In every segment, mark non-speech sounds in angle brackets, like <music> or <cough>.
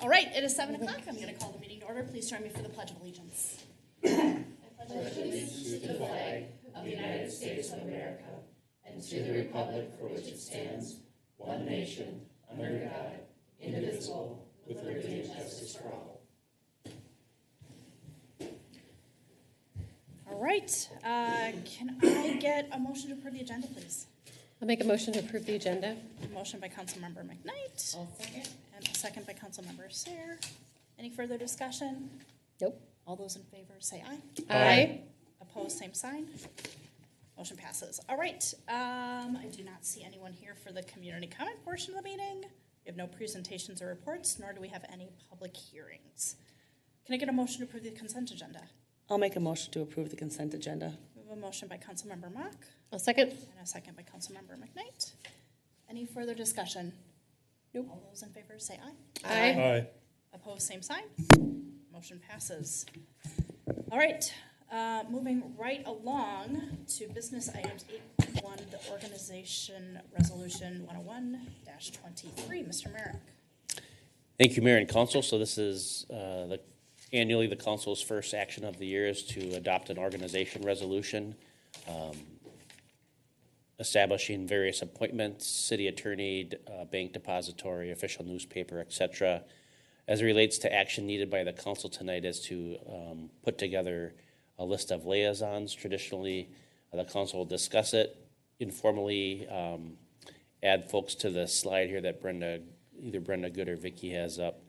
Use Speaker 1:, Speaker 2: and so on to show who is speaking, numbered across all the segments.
Speaker 1: All right, it is seven o'clock. I'm going to call the meeting to order. Please join me for the Pledge of Allegiance. All right, uh, can I get a motion to approve the agenda, please?
Speaker 2: I'll make a motion to approve the agenda.
Speaker 1: Motion by Councilmember McKnight. And a second by Councilmember Sayer. Any further discussion?
Speaker 2: Nope.
Speaker 1: All those in favor say aye.
Speaker 2: Aye.
Speaker 1: Opposed, same sign. Motion passes. All right, um, I do not see anyone here for the community comment portion of the meeting. We have no presentations or reports, nor do we have any public hearings. Can I get a motion to approve the consent agenda?
Speaker 3: I'll make a motion to approve the consent agenda.
Speaker 1: We have a motion by Councilmember Mock
Speaker 2: I'll second.
Speaker 1: and a second by Councilmember McKnight. Any further discussion? Nope. All those in favor say aye.
Speaker 2: Aye.
Speaker 4: Aye.
Speaker 1: Opposed, same sign. Motion passes. All right, uh, moving right along to business items eight point one, the organization resolution one oh one twenty-three. Mr. Merrick.
Speaker 5: Thank you, Mayor and Council. So this is, uh, the- annually, the council's first action of the year is to adopt an organization resolution um, establishing various appointments, city attorney, uh, bank depository, official newspaper, et cetera, as it relates to action needed by the council tonight is to um, put together a list of liaisons. Traditionally, uh, the council will discuss it informally, um, add folks to the slide here that Brenda, either Brenda Good or Vicky has up,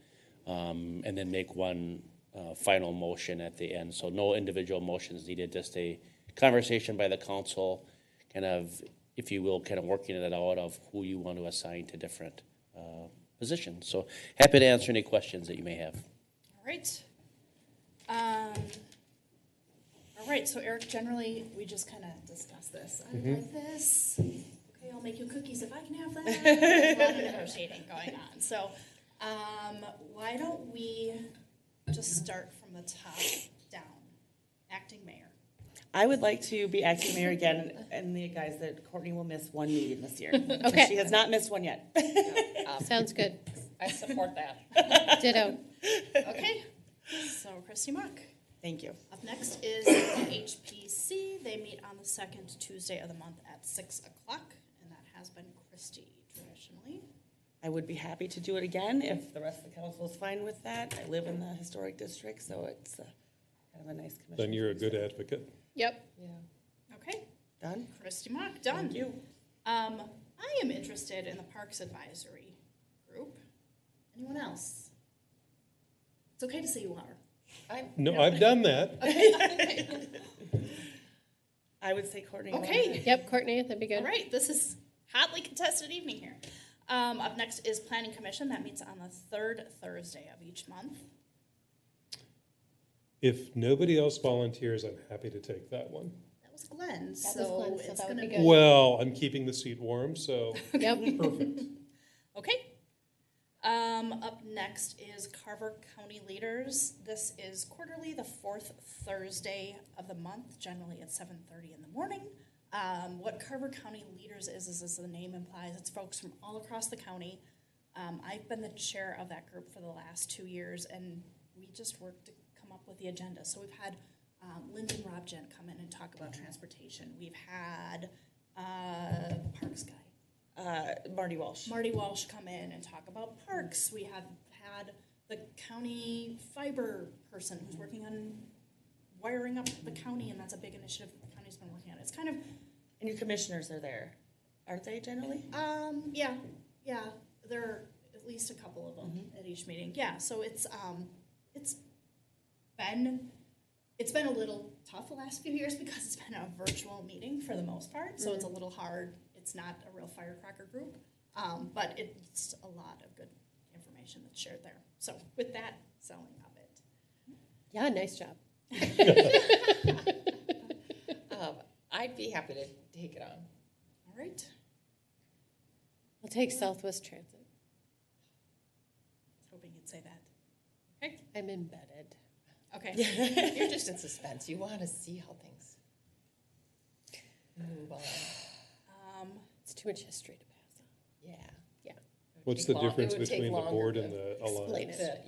Speaker 5: um, and then make one uh, final motion at the end. So no individual motions needed, just a conversation by the council, kind of, if you will, kind of working it out of who you want to assign to different uh, positions. So happy to answer any questions that you may have.
Speaker 1: All right. Um, all right, so Eric, generally, we just kind of discuss this. I like this. Okay, I'll make you cookies if I can have that. There's a lot of negotiating going on. So, um, why don't we just start from the top down? Acting mayor.
Speaker 3: I would like to be acting mayor again, and the guys that Courtney will miss one meeting
Speaker 6: <laughs>
Speaker 3: this year.
Speaker 2: Okay.
Speaker 3: She has not missed one yet.
Speaker 2: Sounds good.
Speaker 6: I support that.
Speaker 2: Ditto.
Speaker 1: Okay. so, Christy Mock.
Speaker 3: Thank you.
Speaker 1: Up next is the HPC. They meet on the second Tuesday of the month at six o'clock, and that has been Christy traditionally.
Speaker 3: I would be happy to do it again if the rest of the council is fine with that. I live in the historic district, so it's uh, kind of a nice commission.
Speaker 4: Then you're a good advocate.
Speaker 2: Yep.
Speaker 1: Okay,
Speaker 3: Done?
Speaker 1: Christy Mock, done.
Speaker 3: Thank you.
Speaker 1: Um, I am interested in the Parks Advisory Group. Anyone else? It's okay to say you are.
Speaker 4: No, I've
Speaker 6: <laughs>
Speaker 4: done that.
Speaker 3: I would say Courtney. go
Speaker 1: Okay.
Speaker 3: ahead.
Speaker 2: Yep, Courtney, that'd be
Speaker 1: All
Speaker 2: good.
Speaker 1: right, this is hotly contested evening here. Um, up next is Planning Commission. That meets on the third Thursday of each month.
Speaker 4: If nobody else volunteers, I'm happy to take that one.
Speaker 1: That was Glenn,
Speaker 2: was
Speaker 1: so
Speaker 2: Glenn, so
Speaker 1: it's
Speaker 2: that would
Speaker 1: gonna
Speaker 2: be
Speaker 1: be.
Speaker 2: good.
Speaker 4: Well, I'm keeping the seat
Speaker 6: <laughs>
Speaker 4: warm, so
Speaker 2: <laughs> Yep.
Speaker 4: perfect.
Speaker 1: Okay. Um, up next is Carver County Leaders. This is quarterly, the fourth Thursday of the month, generally at seven thirty in the morning. Um, what Carver County Leaders is, is as the name implies, it's folks from all across the county. Um, I've been the chair of that group for the last two years, and we just worked to come up with the agenda. So we've had um, Lyndon Robgen come in and talk about transportation. We've had uh, the Parks guy.
Speaker 3: Uh, Marty Walsh.
Speaker 1: Marty Walsh come in and talk about parks. We have had the county fiber person who's working on wiring up the county, and that's a big initiative that the county's been working on. It's kind of,
Speaker 3: And your commissioners are there, aren't they generally?
Speaker 1: um, yeah, yeah, there are at least a couple of them at each meeting. Yeah, so it's, um, it's been, it's been a little tough the last few years because it's been a virtual meeting for the most part, so it's a little hard. It's not a real firecracker group, um, but it's a lot of good information that's shared there. So with that selling of it,
Speaker 2: Yeah, nice job.
Speaker 6: Um, I'd be happy to take it on.
Speaker 1: all right.
Speaker 2: I'll take Southwest Transit.
Speaker 1: I was hoping you'd say that.
Speaker 2: I'm embedded.
Speaker 1: Okay.
Speaker 6: You're just in suspense. You want to see how things move on.
Speaker 1: Um,
Speaker 2: It's too much history to pass.
Speaker 6: Yeah.
Speaker 2: Yeah.
Speaker 4: What's the
Speaker 6: It would
Speaker 4: difference
Speaker 6: take
Speaker 4: between the
Speaker 6: longer
Speaker 4: board
Speaker 6: to
Speaker 4: and the
Speaker 6: explain
Speaker 4: alliance?
Speaker 6: it.